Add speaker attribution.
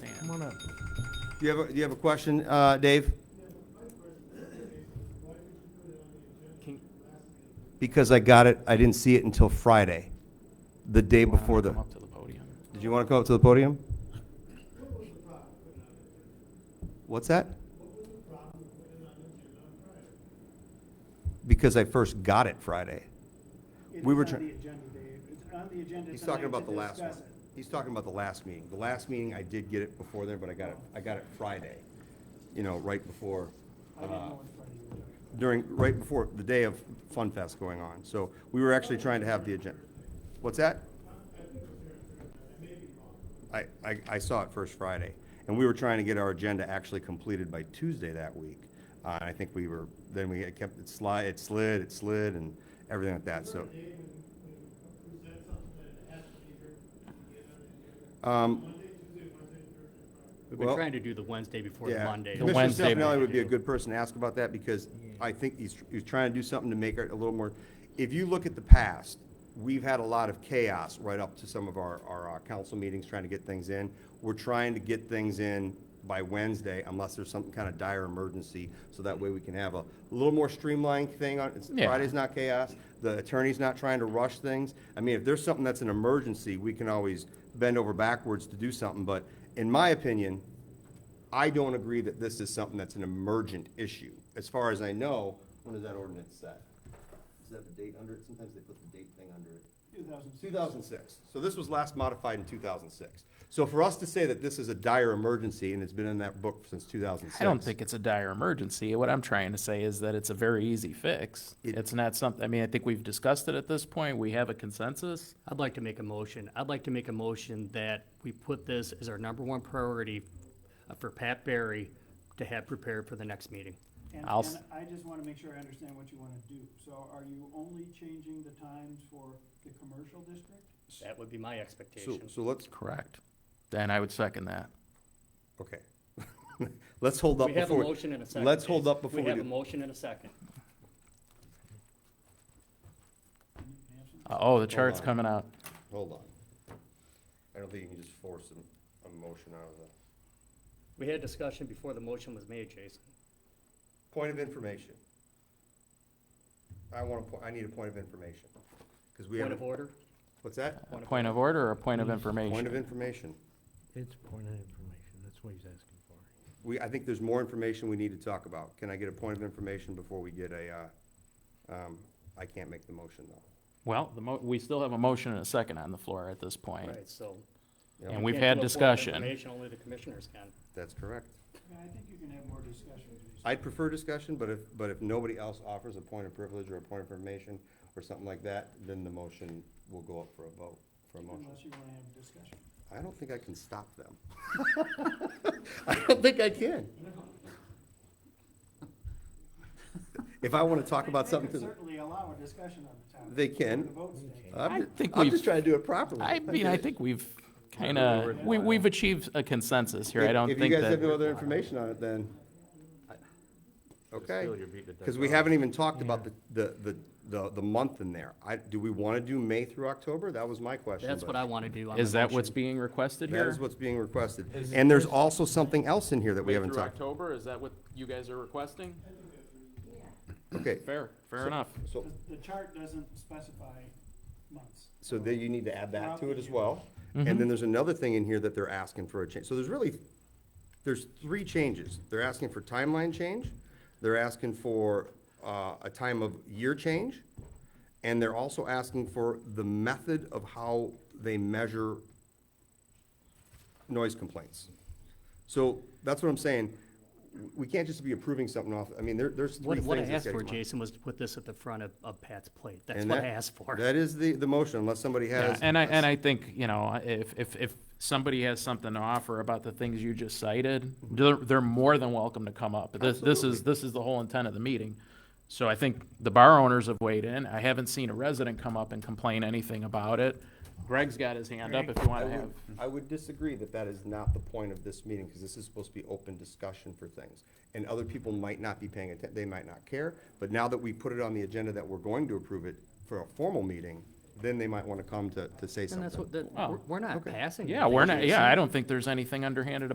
Speaker 1: comment.
Speaker 2: Do you have, a- do you have a question, uh, Dave?
Speaker 1: Can-
Speaker 2: Because I got it, I didn't see it until Friday, the day before the,
Speaker 3: Come up to the podium.
Speaker 2: did you want to come up to the podium? What's that? Because I first got it Friday. We were
Speaker 4: It's on
Speaker 2: try-
Speaker 4: the agenda, Dave. It's on the agenda
Speaker 2: He's talking
Speaker 4: tonight
Speaker 2: about
Speaker 4: to
Speaker 2: the last one.
Speaker 4: discuss it.
Speaker 2: He's talking about the last meeting. The last meeting, I did get it before then, but I got it, I got it Friday, you know, right before,
Speaker 4: I didn't
Speaker 3: Uh-huh.
Speaker 2: uh,
Speaker 4: know what Friday you were doing.
Speaker 2: during, right before the day of Fun Fest going on. So we were actually trying to have the agenda. What's that? I, I, I saw it first Friday, and we were trying to get our agenda actually completed by Tuesday that week. Uh, I think we were, then we kept it slide, it slid, it slid, and everything like that, so.
Speaker 3: Uh,
Speaker 2: Um,
Speaker 5: We've been
Speaker 2: Well-
Speaker 5: trying to do the Wednesday before the
Speaker 2: yeah.
Speaker 5: Monday.
Speaker 3: The Wednesday
Speaker 2: Commissioner Stefanelli
Speaker 3: meeting.
Speaker 2: would be a good person to ask about that because I think he's, he's trying to do something to make it a little more, if you look at the past, we've had a lot of chaos right up to some of our, our uh, council meetings trying to get things in. We're trying to get things in by Wednesday unless there's some kind of dire emergency, so that way we can have a little more streamlined thing on, it's-
Speaker 3: Yeah.
Speaker 2: Friday's not chaos, the attorney's not trying to rush things. I mean, if there's something that's an emergency, we can always bend over backwards to do something, but in my opinion, I don't agree that this is something that's an emergent issue. As far as I know, when is that ordinance set? Does it have a date under it? Sometimes they put the date thing under it.
Speaker 4: 2006.
Speaker 2: 2006. So this was last modified in 2006. So for us to say that this is a dire emergency and it's been in that book since 2006.
Speaker 3: I don't think it's a dire emergency. What I'm trying to say is that it's a very easy fix.
Speaker 2: It-
Speaker 3: It's not something, I mean, I think we've discussed it at this point. We have a consensus.
Speaker 5: I'd like to make a motion. I'd like to make a motion that we put this as our number one priority uh, for Pat Barry to have prepared for the next meeting.
Speaker 4: And,
Speaker 3: I'll s-
Speaker 4: and I just want to make sure I understand what you want to do. So are you only changing the times for the commercial district?
Speaker 5: That would be my
Speaker 2: So,
Speaker 5: expectation.
Speaker 2: so let's,
Speaker 3: Correct. Then I would second that.
Speaker 2: okay. Let's hold up
Speaker 5: We have a
Speaker 2: before.
Speaker 5: motion and a second.
Speaker 2: Let's hold
Speaker 5: Jason.
Speaker 2: up before
Speaker 5: We
Speaker 2: we
Speaker 5: have a
Speaker 2: do.
Speaker 5: motion and a second.
Speaker 4: Can you have some-
Speaker 3: Uh, Oh, the chart's
Speaker 2: on.
Speaker 3: coming out.
Speaker 2: Hold on. I don't think you can just force a, a motion out of the.
Speaker 5: We had discussion before the motion was made, Jason.
Speaker 2: Point of information. I want to, I need a point of information. Because we
Speaker 5: Point
Speaker 2: have,
Speaker 5: of order?
Speaker 2: what's that?
Speaker 5: Point of
Speaker 3: Point of order or a point of
Speaker 2: Hmm. Point
Speaker 3: information?
Speaker 2: of information.
Speaker 6: It's point of information, that's what he's asking for.
Speaker 2: We, I think there's more information we need to talk about. Can I get a point of information before we get a, uh, um, I can't make the motion though.
Speaker 3: Well, the mo, we still have a motion and a second on the floor at this point.
Speaker 5: Right, so.
Speaker 2: Yeah.
Speaker 3: And we've
Speaker 5: Can't
Speaker 3: had
Speaker 5: do a point of
Speaker 3: discussion.
Speaker 5: Information, only the commissioners can.
Speaker 2: That's correct.
Speaker 4: Yeah, I think you can have more discussion, Jason.
Speaker 2: I'd prefer discussion, but if, but if nobody else offers a point of privilege or a point of information or something like that, then the motion will go up for a vote, for a motion.
Speaker 4: Unless you want to have discussion.
Speaker 2: I don't think I can stop them. I don't think I can. If I want to talk about
Speaker 4: They
Speaker 2: something,
Speaker 4: could
Speaker 2: to-
Speaker 4: certainly allow a discussion on the topic.
Speaker 2: They can. Uh,
Speaker 4: The votes taken.
Speaker 2: I'm,
Speaker 3: I
Speaker 2: ju-
Speaker 3: think
Speaker 2: I'm
Speaker 3: we've-
Speaker 2: just trying to do it properly.
Speaker 3: I mean, I think we've kind of, we, we've achieved a consensus here. I
Speaker 2: If-
Speaker 3: don't
Speaker 2: If
Speaker 3: think
Speaker 2: you guys have no
Speaker 3: that,
Speaker 2: other information on it, then, I- okay. Because we haven't even talked about the, the, the, the, the month in there. I, do we want to do May through October? That was my question.
Speaker 5: That's
Speaker 2: but-
Speaker 5: what I want to do. on
Speaker 3: is
Speaker 5: the
Speaker 3: that what's
Speaker 5: motion.
Speaker 3: being requested
Speaker 2: That
Speaker 3: here?
Speaker 2: is what's being requested.
Speaker 3: Is-
Speaker 2: And there's also something else in here that we
Speaker 3: May
Speaker 2: haven't
Speaker 3: through
Speaker 2: talked.
Speaker 3: October, is that what you guys are requesting?
Speaker 2: Okay,
Speaker 3: Fair,
Speaker 2: So-
Speaker 3: fair enough.
Speaker 2: so
Speaker 4: The the chart doesn't specify months.
Speaker 2: So then you need to add that to it as well.
Speaker 3: Mhm.
Speaker 2: And then there's another thing in here that they're asking for a change. So there's really, there's three changes. They're asking for timeline change, they're asking for uh, a time of year change, and they're also asking for the method of how they measure noise complaints. So that's what I'm saying. We can't just be approving something off, I mean, there, there's three
Speaker 5: What,
Speaker 2: things.
Speaker 5: what I
Speaker 2: that's
Speaker 5: asked
Speaker 2: gotta
Speaker 5: for,
Speaker 2: come on.
Speaker 5: Jason, was to put this at the front of, of Pat's plate. That's
Speaker 2: And
Speaker 5: what I
Speaker 2: that-
Speaker 5: asked for.
Speaker 2: That is the, the motion, unless somebody
Speaker 3: Yeah,
Speaker 2: has.
Speaker 3: and I, and I think, you know, if, if, if somebody has something to offer about the things you just cited,
Speaker 2: Mm-hmm.
Speaker 3: they're, they're more than welcome to come up. This, this is, this is the whole intent of the meeting. So I think the bar owners have weighed in. I haven't seen a resident come up and complain anything about it. Greg's got his hand up if you
Speaker 2: I
Speaker 3: want to have.
Speaker 2: would, I would disagree that that is not the point of this meeting, because this is supposed to be open discussion for things. And other people might not be paying attention, they might not care, but now that we put it on the agenda that we're going to approve it for a formal meeting, then they might want to come to, to say
Speaker 5: And that's
Speaker 2: something.
Speaker 5: what, that,
Speaker 3: Oh,
Speaker 5: we're- we're not
Speaker 2: okay.
Speaker 5: passing.
Speaker 3: Yeah,
Speaker 5: anything,
Speaker 3: we're not,
Speaker 5: Jason.
Speaker 3: yeah, I don't think there's anything underhanded